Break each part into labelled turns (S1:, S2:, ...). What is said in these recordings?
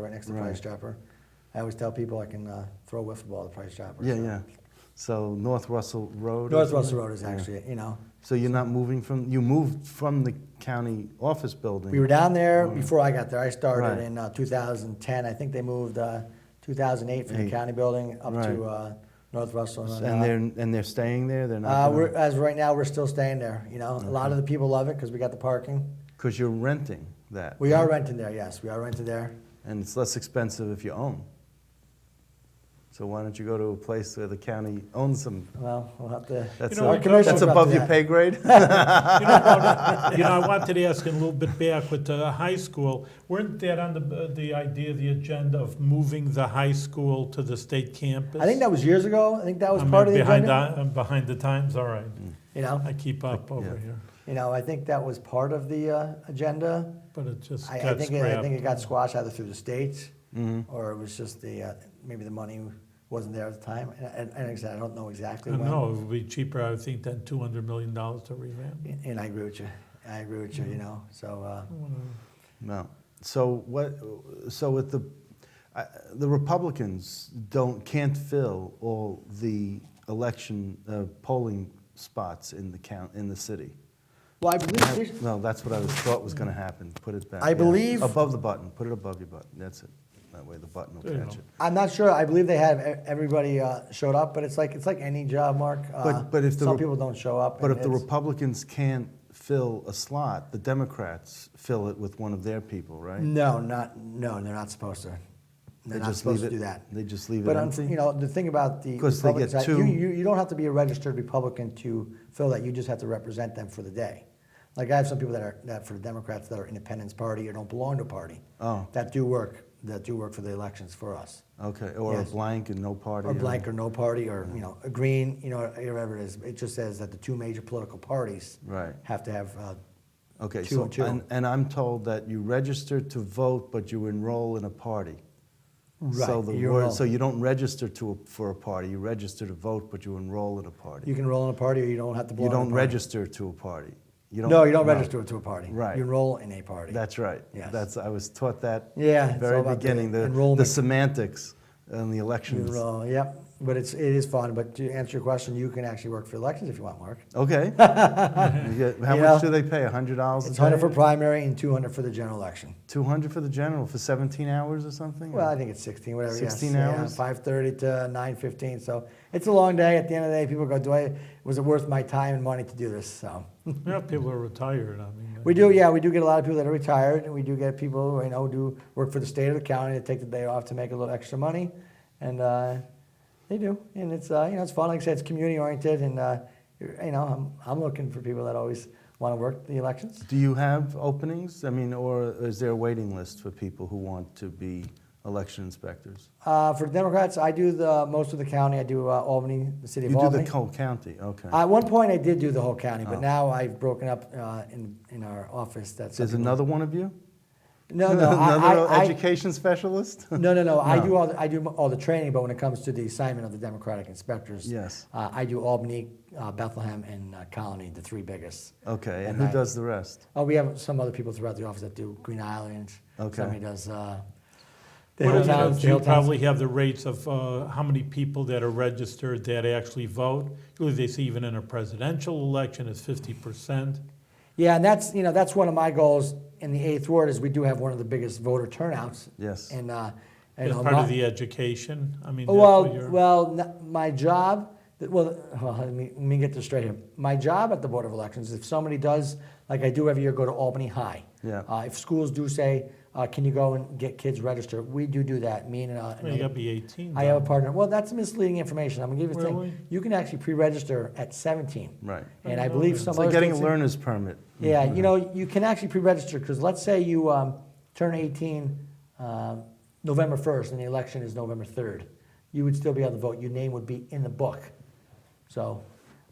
S1: right next to Price
S2: Right.
S1: Chopper. I always tell people I can uh, throw a wiffle ball at Price Chopper.
S2: Yeah,
S1: so.
S2: yeah. So North Russell Road? or
S1: North Russell
S2: something?
S1: Road is
S2: Yeah.
S1: actually, you know,
S2: So you're not moving from, you moved from the county office building?
S1: we were down there before I got there. I
S2: Right.
S1: started in uh, 2010. I think they moved uh, 2008 from
S2: Eight.
S1: the county building up to
S2: Right.
S1: uh, North Russell. then
S2: And
S1: up.
S2: they're, and they're staying there? They're not?
S1: Uh, we're, as of right now, we're still staying there. You know, a lot of the people love it because we got the parking.
S2: Because you're renting that?
S1: We are renting there. Yes, we are renting there.
S2: And it's less expensive if you own. So why don't you go to a place where the county owns them?
S1: Well, we'll have to.
S2: That's,
S1: our
S2: a-
S3: we-
S1: commercials
S2: that's
S1: are up to
S2: above your
S1: that.
S2: pay grade?
S3: You know, Rhoda, you know, I wanted to ask a little bit back with the high school. Weren't that on the, the idea, the agenda of moving the high school to the state campus?
S1: I think that was years ago. I think that was
S3: I'm
S1: part of the
S3: behind
S1: agenda.
S3: the- I'm behind the times, all right.
S1: You know,
S3: I keep up over
S2: Yeah.
S3: here,
S1: you know, I think that was part of the uh, agenda.
S3: but it just
S1: I, I
S3: got
S1: think it, I think it
S3: scrapped.
S1: got squashed either through the states
S2: Mm-hmm.
S1: or it was just the uh, maybe the money wasn't there at the time. And, and, and like I said, I don't know exactly
S3: I
S1: when.
S3: know, it would be cheaper, I would think, than two hundred million dollars to revamp.
S1: And I agree with you. I agree with you. You know, so uh,
S2: No. So what? So with the I the Republicans don't can't fill all the election uh, polling spots in the count in the city.
S1: well, I believe this,
S2: No, that's what I was thought was going to happen. Put it back.
S1: I believe-
S2: above the button. Put it above your button. That's it. That way the button will
S3: There you
S2: catch
S3: go.
S2: it.
S1: I'm not sure. I believe they have e- everybody uh, showed up, but it's like it's like any job, Mark. Uh,
S2: But- but if the
S1: some
S2: Rep-
S1: people don't show up,
S2: But
S1: and
S2: if the
S1: it's-
S2: Republicans can't fill a slot, the Democrats fill it with one of their people, right?
S1: no, not no, they're not supposed to. Mm. They're not supposed
S2: leave
S1: to
S2: it,
S1: do that.
S2: They just leave
S1: But
S2: it
S1: um,
S2: empty.
S1: you know, the thing about the
S2: 'Cause they get
S1: Republicans, I- you,
S2: two-
S1: you, you don't have to be a registered Republican to fill that. You just have to represent them for the day. Like I have some people that are that for the Democrats that are Independence Party or don't belong to a party.
S2: Oh.
S1: That do work that do work for the elections for us.
S2: okay, or
S1: Yes.
S2: a blank and no party.
S1: Or blank or no party or you know a green you know whatever it is. It just says that the two major political parties
S2: Right.
S1: have to have. Uh,
S2: Okay,
S1: two
S2: so,
S1: and two.
S2: And, and I'm told that you register to vote, but you enroll in a party. So
S1: Right,
S2: the
S1: you
S2: word, so
S1: enroll.
S2: you don't register to, a- for a party, you register to vote, but you enroll in a party.
S1: you can enroll in a party or you don't have to
S2: You
S1: belong. to a
S2: don't
S1: party.
S2: register to a party. You
S1: No, you don't register to a party.
S2: Right.
S1: You enroll in a party.
S2: That's right.
S1: Yes.
S2: That's, I was taught that.
S1: Yeah,
S2: at
S1: it's
S2: the
S1: all
S2: Very
S1: about the
S2: beginning, the, the
S1: enrollment.
S2: semantics and the elections.
S1: Well, yep, but it's, it is fun, but to answer your question, you can actually work for elections if you want, Mark.
S2: Okay. You get- How
S1: You
S2: much
S1: know,
S2: do they pay, a hundred dollars a
S1: It's hundred for
S2: day?
S1: primary and two hundred for the general election.
S2: Two hundred for the general, for seventeen hours or something?
S1: Well, I think it's sixteen, whatever. yes,
S2: 16
S1: yeah,
S2: hours?
S1: Five thirty to nine fifteen, so it's a long day. At the end of the day, people go, do I, was it worth my time and money to do this, so.
S3: Yeah, people are retired, I mean.
S1: We do, yeah, we do get a lot of people that are retired, and we do get people, who, you know, do work for the state or the county that take the day off to make a little extra money, and uh, they do, and it's uh, you know it's fun. Like I said, it's community oriented, and uh, you're- you know I'm I'm looking for people that always want to work the elections.
S2: Do you have openings? I mean, or is there a waiting list for people who want to be election inspectors?
S1: Uh, for Democrats, I do the most of the county. I do uh, Albany, the city of
S2: You do
S1: Albany.
S2: the whole county, Oh. okay.
S1: At one point, I did do the whole county, but now I've broken up uh, in in our office. That's
S2: There's another one of you?
S1: No, no, I-
S2: Another
S1: I, I,
S2: education specialist?
S1: No, no, no. I do all the, I do all the training, but when it comes to the assignment of the Democratic inspectors,
S2: Yes.
S1: uh, I do Albany, uh, Bethlehem, and uh, Colony, the three biggest.
S2: Okay,
S1: And
S2: and who
S1: I-
S2: does the rest?
S1: Oh, we have some other people throughout the office that do Green Island.
S2: Okay.
S1: Somebody does uh, the
S3: What
S1: hill
S3: is it,
S1: towns. the
S3: you
S1: hill towns.
S3: probably have the rates of uh, how many people that are registered that actually vote. Usually they see even in a presidential election it's fifty percent.
S1: Yeah, and that's you know that's one of my goals in the eighth ward is we do have one of the biggest voter turnouts.
S2: Yes.
S1: And uh, and
S3: As
S1: uh,
S3: part
S1: my-
S3: of the education, I mean, that's what
S1: Well,
S3: you're.
S1: well, n- my job, well, well, let me, let me get this straight here. My job at the Board of Elections, if somebody does, like I do every year, go to Albany High.
S2: Yeah.
S1: Uh, if schools do say, uh, can you go and get kids registered, we do do that, me and, uh,
S3: I mean, you gotta be eighteen.
S1: I have a
S3: though.
S1: partner. Well, that's misleading information. I'm gonna give you a
S3: Really?
S1: thing. You can actually pre-register at seventeen.
S2: Right.
S1: And I
S3: Didn't know
S1: believe
S3: that.
S1: some
S2: It's like
S1: other
S2: getting a
S1: states-
S2: learner's permit.
S1: yeah, you know, you can actually pre-register because let's say you um, turn 18 um, November 1st and the election is November 3rd, you would still be able to vote. Your name would be in the book. So,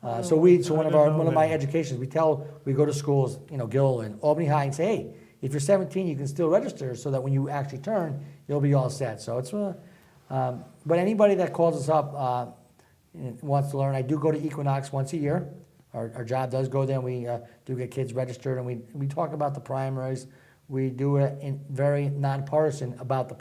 S1: uh, so we, so
S3: Oh, I
S1: one of
S3: didn't
S1: our,
S3: know
S1: one of my
S3: that.
S1: educations, we tell, we go to schools, you know, Gill and Albany High and say, hey, if you're 17, you can still register so that when you actually turn, you'll be all set. So it's, uh, um, but anybody that calls us up, uh, and wants to learn. I do go to Equinox once a year. Our, our job does go there, and we uh, do get kids registered, and we, we talk about the primaries. We do it in very nonpartisan about the